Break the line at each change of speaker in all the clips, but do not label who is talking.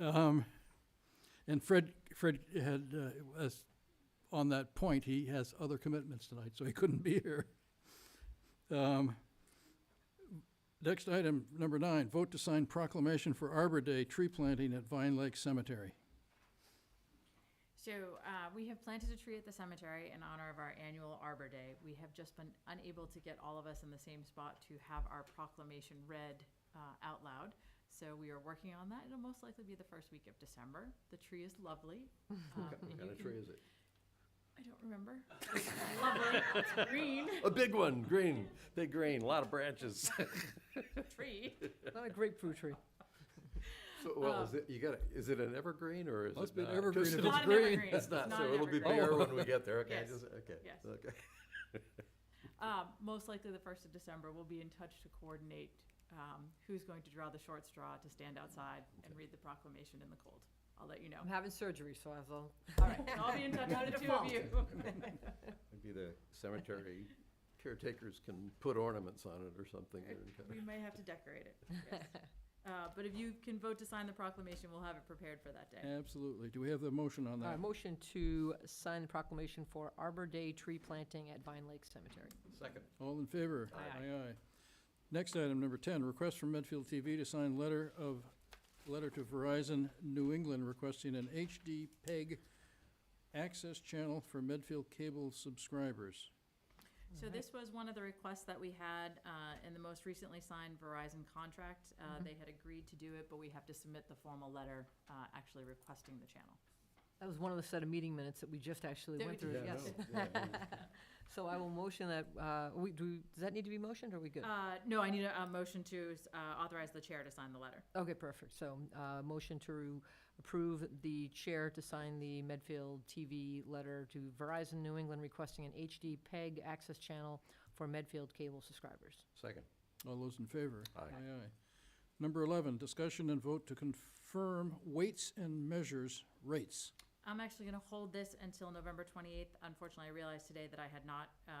Um, and Fred, Fred had, uh, as, on that point, he has other commitments tonight, so he couldn't be here. Um, next item, number nine, vote to sign proclamation for Arbor Day tree planting at Vine Lake Cemetery.
So, uh, we have planted a tree at the cemetery in honor of our annual Arbor Day. We have just been unable to get all of us in the same spot to have our proclamation read, uh, out loud. So we are working on that. It'll most likely be the first week of December. The tree is lovely. Um, and you can-
is it?
I don't remember. It's lovely, it's green
A big one, green, big green, a lot of branches.
tree.
Not a grapefruit tree.
So,
Uh.
well, is it, you got, is it an evergreen or is it?
Must be an
not?
evergreen
'Cause
if
it
it's
is-
Not an
green.
evergreen.
It's not,
not
so
an
it'll be
evergreen.
bigger when we get there, okay,
Yes.
just, okay.
Yes.
Okay.
Um, most likely the first of December, we'll be in touch to coordinate, um, who's going to draw the short straw to stand outside and read the proclamation in the cold. I'll let you know.
I'm having surgery, so I have all.
All right, so I'll be in touch with the two of you.
Maybe the cemetery caretakers can put ornaments on it or something.
Uh, We may have to decorate it, yes. Uh, but if you can vote to sign the proclamation, we'll have it prepared for that day.
Absolutely. Do we have the motion on
Uh,
that?
motion to sign the proclamation for Arbor Day tree planting at Vine Lake Cemetery.
Second.
All in favor?
Aye. Aye.
Aye. Next item, number ten, request from Medfield TV to sign letter of, letter to Verizon New England requesting an HD PEG E access channel for Medfield cable subscribers.
So this was one of the requests that we had, uh, in the most recently signed Verizon contract. Uh, they had agreed to do it, but we have to submit the formal letter, uh, actually requesting the channel.
That was one of the set of meeting minutes that we just actually
That
went
we
through,
did.
yes. So I will motion that, uh, we, do, does that need to be motioned, or are we good?
Uh, no, I need a, a motion to, uh, authorize the chair to sign the letter.
Okay, perfect. So, uh, motion to approve the chair to sign the Medfield TV letter to Verizon New England requesting an HD PEG E access channel for Medfield cable subscribers.
Second. Uh,
All those in favor?
Aye.
Aye. Number eleven, discussion and vote to confirm weights and measures rates.
I'm actually gonna hold this until November twenty-eighth. Unfortunately, I realized today that I had not, uh,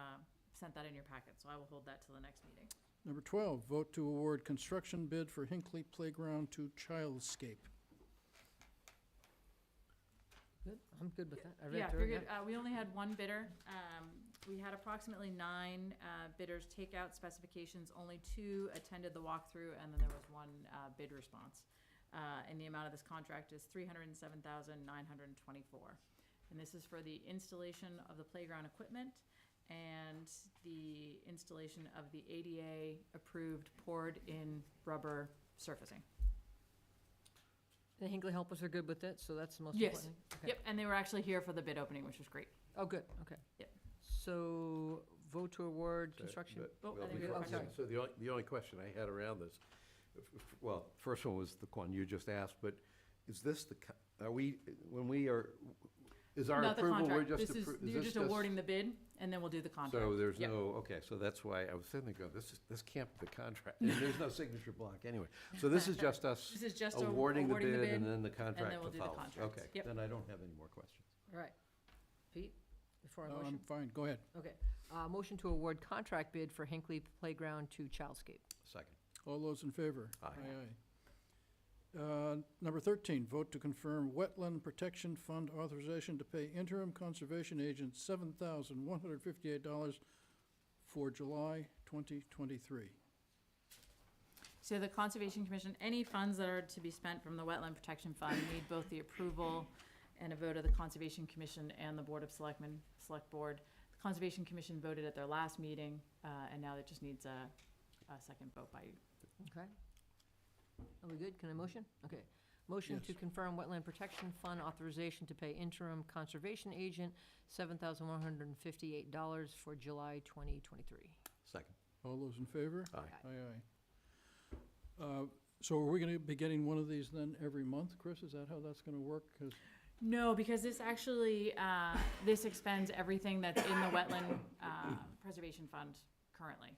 sent that in your packet, so I will hold that till the next meeting.
Number twelve, vote to award construction bid for Hinckley Playground to Childscape.
Good, I'm good with that. I
Yeah,
read through
very
it, yeah.
good. Uh, we only had one bidder. Um, we had approximately nine, uh, bidders take out specifications. Only two attended the walkthrough and then there was one, uh, bid response. Uh, and the amount of this contract is three hundred and seven thousand nine hundred and twenty-four. And this is for the installation of the playground equipment and the installation of the ADA-approved poured-in rubber surfacing.
The Hinkley helpers are good with it, so that's the most
Yes.
important. thing? Okay.
Yep, and they were actually here for the bid opening, which was great.
Oh, good, okay.
Yep.
So vote to award
So,
construction.
but-
Oh,
well,
I think
we
before-
have a question.
So the only, the only question I had around this, f- f- well, first one was the one you just asked, but is this the, co- are we, when we are, is our
Not the
approval, we're
contract.
just.
This is,
appro- is
you're
this
just awarding the bid, and then we'll do the contract.
So there's
Yep.
no, okay, so that's why I was sitting there going, this is, this can't be the contract, and there's no signature block anyway. So this is just us
This is just a-
awarding the bid and then the contract
we'll
to
do the
follow.
contracts.
Okay,
Yep.
then I don't have any more questions.
All right. Pete, before I
No, I'm
motion?
Um, fine, go ahead.
Okay. Uh, Motion to award contract bid for Hinkley Playground to Childscape.
Second.
All those in favor?
Aye.
Aye, aye. Uh, Number 13, vote to confirm Wetland Protection Fund authorization to pay interim conservation agent $7,158 for July 2023.
So the Conservation Commission, any funds that are to be spent from the Wetland Protection Fund need both the approval and a vote of the Conservation Commission and the Board of Selectmen, Select Board. The Conservation Commission voted at their last meeting, uh, and now it just needs a, a second vote by you.
Okay. Are we good? Can I motion? Okay. Motion to
Yes.
confirm Wetland Protection Fund authorization to pay interim conservation agent $7,158 for July 2023.
Second.
All those in favor?
Aye.
Aye, aye. Uh, So are we going to be getting one of these then every month, Chris? Is that how that's going to work? 'Cause-
No, because this actually, uh, this expends everything that's in the wetland, uh, preservation fund currently.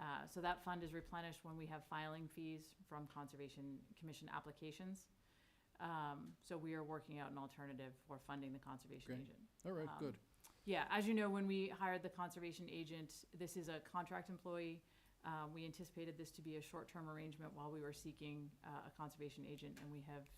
Uh, so that fund is replenished when we have filing fees from Conservation Commission applications. Um, so we are working out an alternative for funding the conservation
Great.
agent.
all right,
Um,
good.
Yeah, as you know, when we hired the conservation agent, this is a contract employee. Uh, we anticipated this to be a short-term arrangement while we were seeking, uh, a conservation agent, and we have